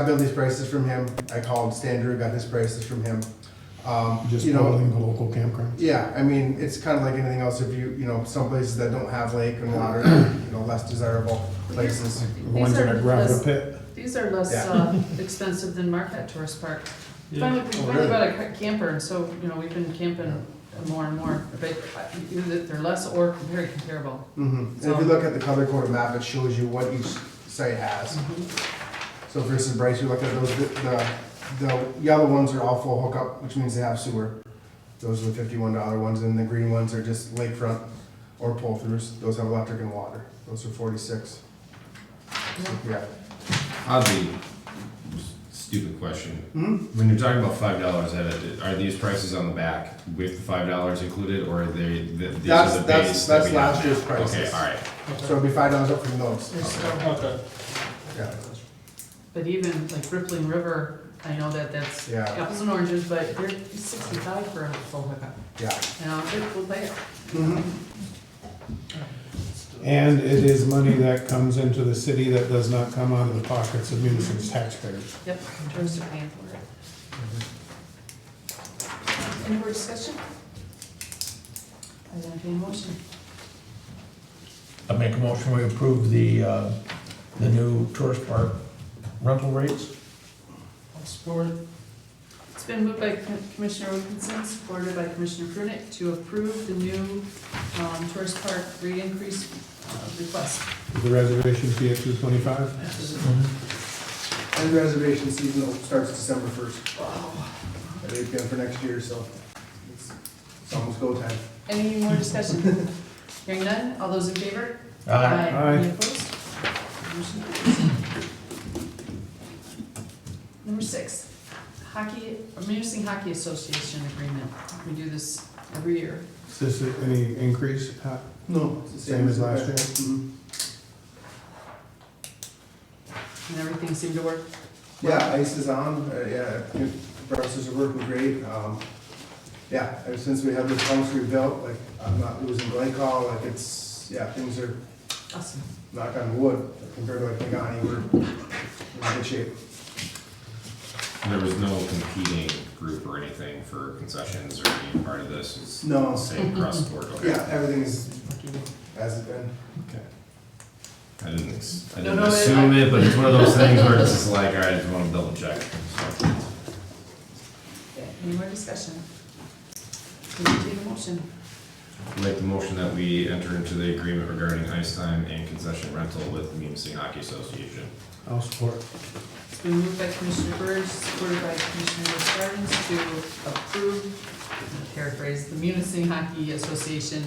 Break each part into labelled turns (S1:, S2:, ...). S1: I got these prices from him. I called Stan Drew, got his prices from him. Um,
S2: Just
S1: you know,
S2: building the local campground.
S1: yeah, I mean, it's kind of like anything else. If you, you know, some places that don't have lake and water, you know, less desirable places.
S2: The
S3: These
S2: ones that
S3: are
S2: are gravel
S3: less-
S2: pit.
S3: These are less
S1: Yeah.
S3: uh, expensive than Marquette Tourist Park. Finally, we
S1: Oh,
S3: finally
S1: really?
S3: got a ca- camper, and so, you know, we've been camping more and more, but uh, either they're less or very comparable.
S1: hmm And if you look at the color coded map, it shows you what each site has. So versus Bryce, you look at those, the, the yellow ones are all full hookup, which means they have sewer. Those are the fifty-one dollar ones, and the green ones are just lakefront or pull-throughs. Those have electric and water. Those are forty-six. So, Yeah.
S4: Oddly, stupid question.
S1: Hmm?
S4: When you're talking about five dollars, are these prices on the back with the five dollars included, or are they? The, these
S1: That's-
S4: are the
S1: that's- that's
S4: base that we have
S1: last
S4: now?
S1: year's prices.
S4: Okay, all right.
S1: So it'll be five dollars up from those.
S3: There's still-
S1: Yeah.
S3: But even like Rippling River, I know that that's
S1: Yeah.
S3: apples and oranges, but they're sixty-five for a full hookup.
S1: Yeah.
S3: You know, they're- we'll pay it.
S2: And it is money that comes into the city that does not come out of the pockets of municipal taxpayers.
S3: Yep, in terms of paying for it. Any more discussion? I entertain a motion.
S5: I make a motion, we approve the, uh, the new tourist park rental rates.
S3: It's been moved by Com- Commissioner Wilkinson, supported by Commissioner Prunick, to approve the new um, tourist park rate increase uh, request.
S2: The reservation fee at two twenty-five? Mm-hmm.
S1: And reservation season starts December first. At eight PM for next year, so it's, it's almost go time.
S3: Any more discussion? Hearing none, all those in favor?
S5: Aye.
S2: Aye.
S3: Any opposed? Motion carries. Number six, hockey, Munising Hockey Association agreement. We do this every year.
S2: Is this any increase? Uh,
S1: No. It's the
S2: Same as last year?
S1: Mhm.
S3: And everything seemed to work.
S2: Mm-hmm.
S1: Yeah, ice is on, uh, yeah, I think processes are working great. Um, yeah, ever since we had this pumps rebuilt, like, I'm not losing glycol, like, it's, yeah, things are
S3: Awesome.
S1: knock on wood compared to like Pagani, we're we're in good shape.
S4: There was no competing group or anything for concessions or being part of this. It's
S1: No.
S4: the same across the board. Okay.
S1: Yeah, everything is
S3: Lucky you.
S1: as it's been.
S4: Okay. I didn't. Ex- I
S3: No,
S4: didn't
S3: no, it-
S4: assume it, but it's one of those things where it's just like, all right, I just want to double check. So.
S3: Okay, Any more discussion? Entertain a motion.
S4: Make the motion that we enter into the agreement regarding ice time and concession rental with Munising Hockey Association.
S2: I'll support.
S3: It's been moved by Commissioner Birch, supported by Commissioner Stern's to approve, paraphrase, the Munising Hockey Association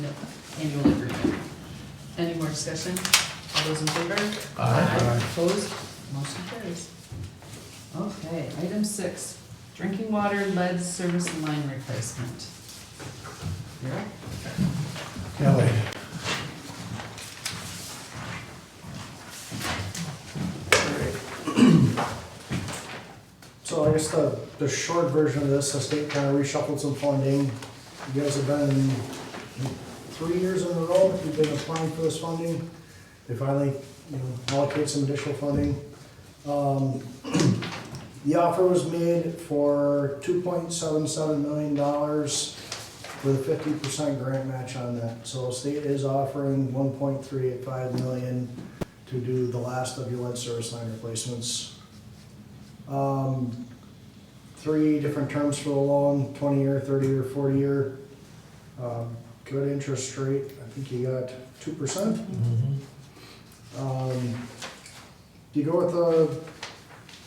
S3: annual agreement. Any more discussion? All those in favor? Opposed? Motion carries. Okay, item six, drinking water lead service line replacement. Vera?
S2: Kelly.
S6: So I guess the, the short version of this, the state kind of reshuffled some funding. You guys have been three years in a row, you've been applying for this funding. They finally, you know, allocate some additional funding. Um, The offer was made for two point seven seven million dollars with a fifty percent grant match on that. So state is offering one point three eight five million to do the last of your lead service line replacements. Um, three different terms for the loan, twenty year, thirty year, forty year. Um, good interest rate, I think you got two percent.
S5: Mhm.
S6: Um, you go with the,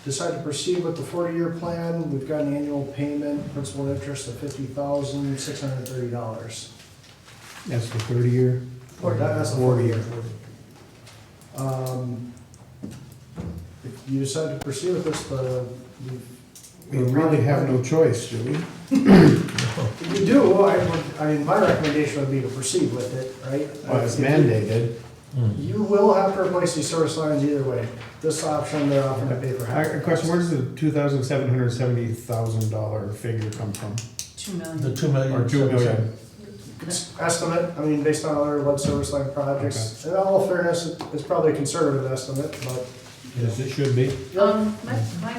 S6: decide to proceed with the forty-year plan, we've got an annual payment, principal and interest of fifty thousand, six hundred and thirty dollars.
S2: That's the thirty-year?
S6: Or that- that's the forty-year. Um, if you decide to proceed with this, uh, the, the
S2: We really have no choice, do we?
S6: If you do, I would, I mean, my recommendation would be to proceed with it, right?
S2: Well, it's mandated.
S5: mm-hmm.
S6: You will have to replace these service lines either way. This option, they're offering to pay for half.
S2: A question, where does the two thousand seven hundred seventy thousand dollar figure come from?
S3: Two million.
S5: The two million.
S2: Or two million?
S6: It's Estimate, I mean, based on other lead service line projects. In all fairness, it- it's probably a conservative estimate, but
S2: Yes, it should be.
S3: Um, my, my